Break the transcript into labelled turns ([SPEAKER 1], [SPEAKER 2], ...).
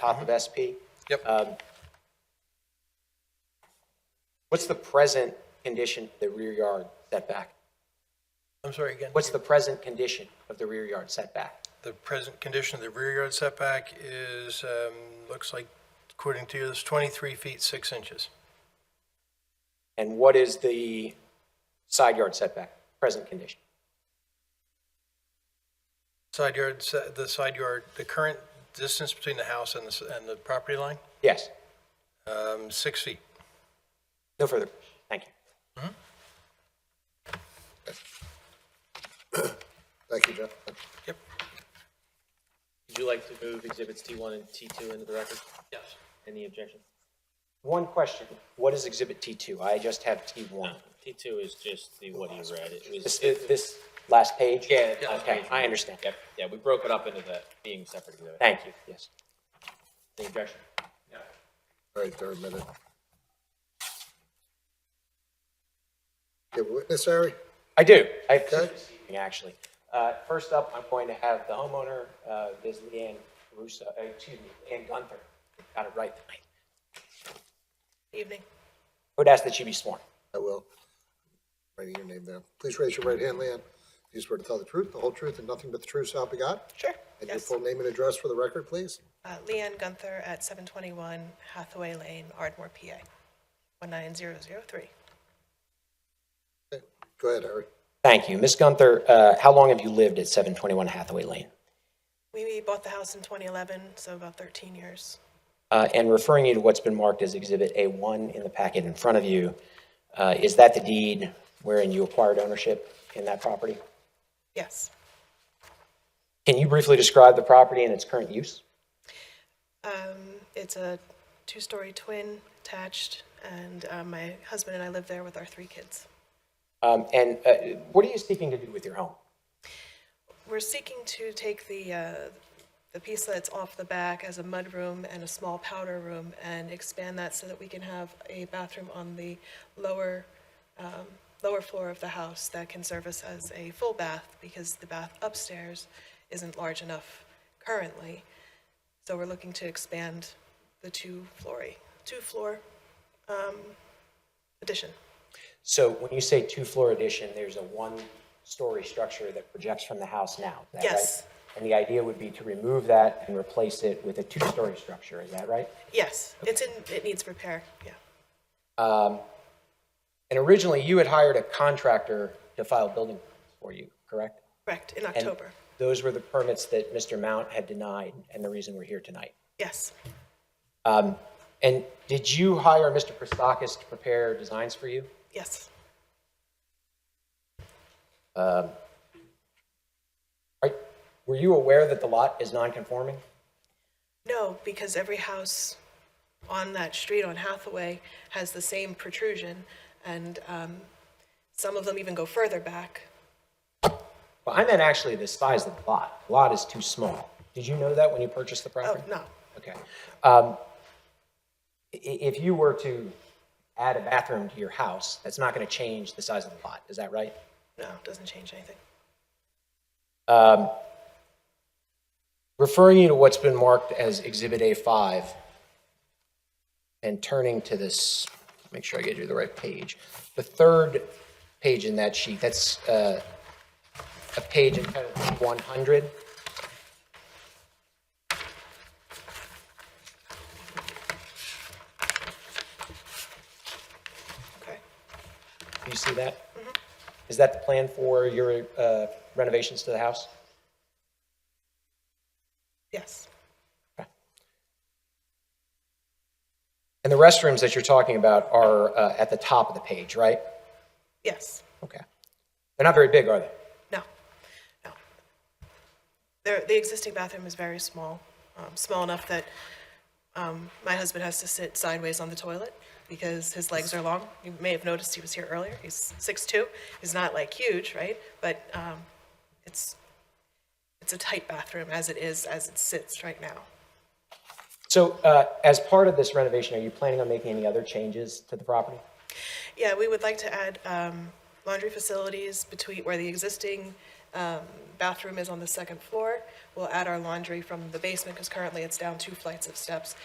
[SPEAKER 1] top of SP.
[SPEAKER 2] Yep.
[SPEAKER 1] Um, What's the present condition, of the rear yard setback?
[SPEAKER 2] I'm sorry, again,
[SPEAKER 1] What's the present condition of the rear yard setback?
[SPEAKER 2] the present condition of the rear yard setback is, um, looks like, according to you, it's 23 feet 6 inches.
[SPEAKER 1] And what is the side yard setback, present condition?
[SPEAKER 2] Side yard, se- the side yard, the current distance between the house and the, s- and the property line,
[SPEAKER 1] Yes,
[SPEAKER 2] um, 6 feet.
[SPEAKER 1] no further, thank you.
[SPEAKER 3] Thank you, John.
[SPEAKER 2] Yep.
[SPEAKER 4] Would you like to move exhibits T1 and T2 into the record?
[SPEAKER 2] Yes.
[SPEAKER 4] Any objection?
[SPEAKER 1] One question, what is Exhibit T2? I just have T1.
[SPEAKER 4] T2 is just the, what you read. It
[SPEAKER 1] This, uh,
[SPEAKER 4] was,
[SPEAKER 1] this last page?
[SPEAKER 4] yeah. last
[SPEAKER 1] Okay,
[SPEAKER 4] page.
[SPEAKER 1] I understand.
[SPEAKER 4] Yep, yeah, we broke it up into the being separate exhibit.
[SPEAKER 1] Thank you, yes.
[SPEAKER 4] Any objection?
[SPEAKER 3] All right, third minute. You have a witness, Harry?
[SPEAKER 1] I do. I have two
[SPEAKER 3] Okay.
[SPEAKER 1] this evening, actually. Uh, First up, I'm going to have the homeowner, uh, Ms. Leanne Russo, uh, excuse me, Leanne Gunther, got it right tonight.
[SPEAKER 5] Evening.
[SPEAKER 1] Would ask that she be sworn.
[SPEAKER 3] I will. Writing your name down. Please raise your right hand, Leanne. Do you swear to tell the truth, the whole truth, and nothing but the truth, so help you God?
[SPEAKER 5] Sure.
[SPEAKER 3] And your
[SPEAKER 5] Yes.
[SPEAKER 3] full name and address for the record, please?
[SPEAKER 5] Uh, Leanne Gunther at 721 Hathaway Lane, Ardmore, PA, 19003.
[SPEAKER 3] Okay. Go ahead, Harry.
[SPEAKER 1] Thank you. Ms. Gunther, uh, how long have you lived at 721 Hathaway Lane?
[SPEAKER 5] We bought the house in 2011, so about 13 years.
[SPEAKER 1] Uh, And referring you to what's been marked as Exhibit A1 in the packet in front of you, uh, is that the deed wherein you acquired ownership in that property?
[SPEAKER 5] Yes.
[SPEAKER 1] Can you briefly describe the property and its current use?
[SPEAKER 5] Um, It's a two-story twin attached, and uh, my husband and I live there with our three kids.
[SPEAKER 1] Um, And uh, what are you seeking to do with your home?
[SPEAKER 5] We're seeking to take the, uh, the piece that's off the back as a mudroom and a small powder room and expand that so that we can have a bathroom on the lower, um, lower floor of the house that can service as a full bath because the bath upstairs isn't large enough currently. So we're looking to expand the two flooring, two floor, um, addition.
[SPEAKER 1] So when you say two-floor addition, there's a one-story structure that projects from the house now, is that right?
[SPEAKER 5] Yes.
[SPEAKER 1] And the idea would be to remove that and replace it with a two-story structure, is that right?
[SPEAKER 5] Yes, it's in, it needs repair, yeah.
[SPEAKER 1] And originally, you had hired a contractor to file building permits for you, correct?
[SPEAKER 5] Correct, in
[SPEAKER 1] And
[SPEAKER 5] October.
[SPEAKER 1] Those were the permits that Mr. Mount had denied, and the reason we're here tonight.
[SPEAKER 5] Yes,
[SPEAKER 1] And did you hire Mr. Christakis to prepare designs for you?
[SPEAKER 5] yes.
[SPEAKER 1] Right? Were you aware that the lot is non-conforming?
[SPEAKER 5] No, because every house on that street on Hathaway has the same protrusion, and um, some of them even go further back.
[SPEAKER 1] Well, I meant actually the size of the lot. The lot is too small. Did you know that when you purchased the
[SPEAKER 5] Oh,
[SPEAKER 1] property?
[SPEAKER 5] no,
[SPEAKER 1] Okay. Um, i- If you were to add a bathroom to your house, that's not going to change the size of the lot, is that right?
[SPEAKER 5] no, doesn't change anything.
[SPEAKER 1] Referring you to what's been marked as Exhibit A5 and turning to this, make sure I get you the right page, the third page in that sheet, that's uh, a page entitled 100.
[SPEAKER 5] Okay.
[SPEAKER 1] Do you see that? Is that the plan for your uh, renovations to the house?
[SPEAKER 5] Yes,
[SPEAKER 1] And the restrooms that you're talking about are uh, at the top of the page, right?
[SPEAKER 5] yes,
[SPEAKER 1] Okay. They're not very big, are they?
[SPEAKER 5] no, no. There, the existing bathroom is very small, um, small enough that um, my husband has to sit sideways on the toilet because his legs are long. You may have noticed he was here earlier. He's 6'2". He's not like huge, right? But um, it's, it's a tight bathroom as it is, as it sits right now.
[SPEAKER 1] So uh, as part of this renovation, are you planning on making any other changes to the property?
[SPEAKER 5] Yeah, we would like to add um, laundry facilities between where the existing um, bathroom is on the second floor. We'll add our laundry from the basement, because currently it's down two flights of steps.